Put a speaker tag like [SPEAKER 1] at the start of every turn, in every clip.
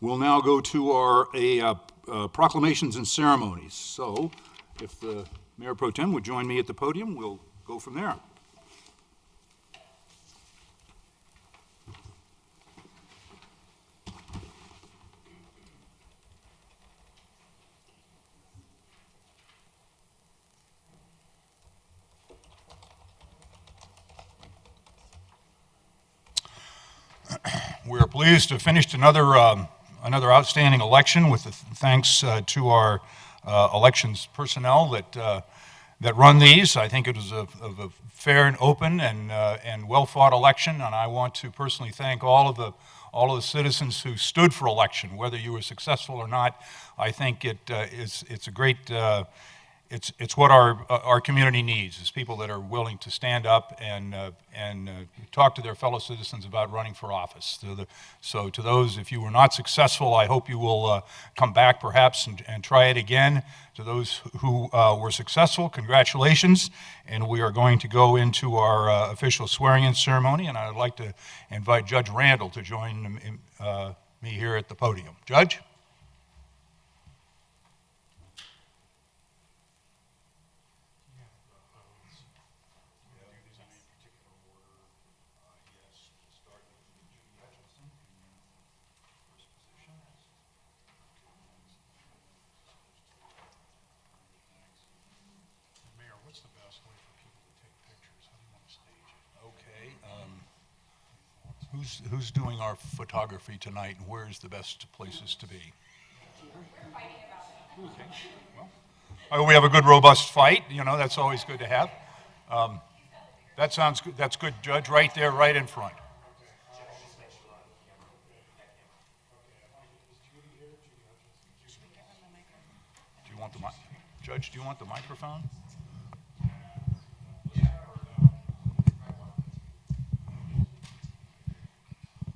[SPEAKER 1] We'll now go to our a, uh, uh, proclamations and ceremonies. So if the Mayor Pro Tem would join me at the podium, we'll go from there. We are pleased to have finished another, um, another outstanding election with the thanks uh, to our uh, elections personnel that, uh, that run these. I think it was a, of a fair and open and, uh, and well-fought election, and I want to personally thank all of the, all of the citizens who stood for election, whether you were successful or not. I think it uh, is, it's a great, uh, it's, it's what our, uh, our community needs, is people that are willing to stand up and, uh, and uh, talk to their fellow citizens about running for office. So, the, so to those, if you were not successful, I hope you will uh, come back perhaps and, and try it again. To those who uh, were successful, congratulations. And we are going to go into our uh, official swearing-in ceremony, and I'd like to invite Judge Randall to join um, in, uh, me here at the podium. Judge?
[SPEAKER 2] Mayor, what's the best way for people to take pictures? How do you want to stage it?
[SPEAKER 1] Okay, um, who's, who's doing our photography tonight, and where's the best places to be? We're fighting about it. We have a good, robust fight, you know, that's always good to have. Um, That sounds, good. that's good, Judge, right there, right in front. Do you want the mic? Judge, do you want the microphone?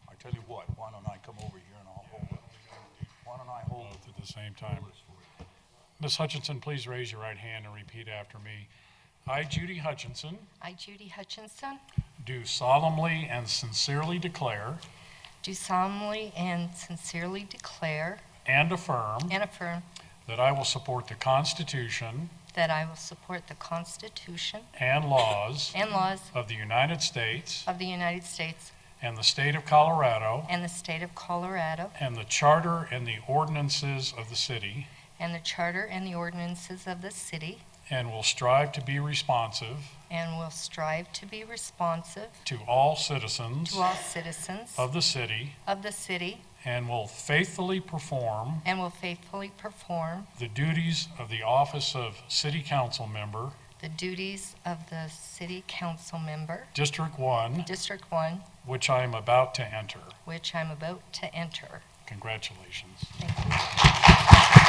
[SPEAKER 1] I tell you what, why don't I come over here and I'll hold it? Why don't I hold
[SPEAKER 2] Both
[SPEAKER 1] it?
[SPEAKER 2] at the same time. Ms. Hutchinson, please raise your right hand and repeat after me. I, Judy Hutchinson,
[SPEAKER 3] I, Judy Hutchinson,
[SPEAKER 2] do solemnly and sincerely declare
[SPEAKER 3] do solemnly and sincerely declare
[SPEAKER 2] and affirm
[SPEAKER 3] and affirm
[SPEAKER 2] that I will support the Constitution
[SPEAKER 3] that I will support the Constitution
[SPEAKER 2] and laws
[SPEAKER 3] and laws
[SPEAKER 2] of the United States
[SPEAKER 3] of the United States
[SPEAKER 2] and the state of Colorado
[SPEAKER 3] and the state of Colorado
[SPEAKER 2] and the charter and the ordinances of the city
[SPEAKER 3] and the charter and the ordinances of the city
[SPEAKER 2] and will strive to be responsive
[SPEAKER 3] and will strive to be responsive
[SPEAKER 2] to all citizens
[SPEAKER 3] to all citizens
[SPEAKER 2] of the city
[SPEAKER 3] of the city
[SPEAKER 2] And will faithfully perform
[SPEAKER 3] and will faithfully perform
[SPEAKER 2] the duties of the office of City Council Member,
[SPEAKER 3] the duties of the city council member,
[SPEAKER 2] District One,
[SPEAKER 3] District 1,
[SPEAKER 2] which I am about to enter.
[SPEAKER 3] which I'm about to enter.
[SPEAKER 2] Congratulations.
[SPEAKER 3] Thank you.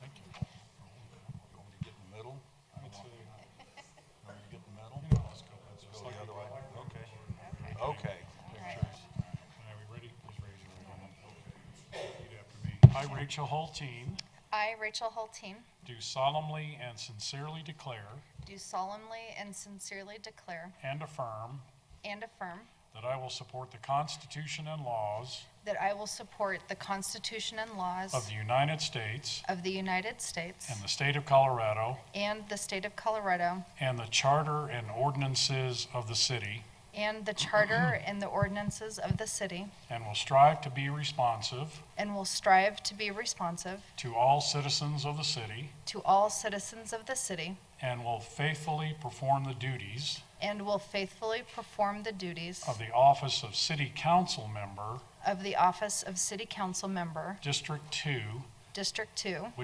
[SPEAKER 2] Thank you.
[SPEAKER 1] You want me to get in the middle? I don't want to. You want me to get in the middle? Let's go the other way. Okay. Okay.
[SPEAKER 2] Are we ready? Please raise your right hand. Repeat after me. I, Rachel Hulteen,
[SPEAKER 4] I, Rachel Hulteen,
[SPEAKER 2] do solemnly and sincerely declare
[SPEAKER 4] do solemnly and sincerely declare
[SPEAKER 2] and affirm
[SPEAKER 4] and affirm
[SPEAKER 2] that I will support the Constitution and laws
[SPEAKER 4] that I will support the Constitution and laws
[SPEAKER 2] of the United States
[SPEAKER 4] of the United States
[SPEAKER 2] and the state of Colorado
[SPEAKER 4] and the state of Colorado
[SPEAKER 2] and the charter and ordinances of the city
[SPEAKER 4] and the charter and the ordinances of the city
[SPEAKER 2] and will strive to be responsive
[SPEAKER 4] and will strive to be responsive
[SPEAKER 2] to all citizens of the city
[SPEAKER 4] to all citizens of the city
[SPEAKER 2] and will faithfully perform the duties
[SPEAKER 4] and will faithfully perform the duties
[SPEAKER 2] of the office of City Council Member,
[SPEAKER 4] of the office of City Council Member,
[SPEAKER 2] District Two,
[SPEAKER 4] District 2,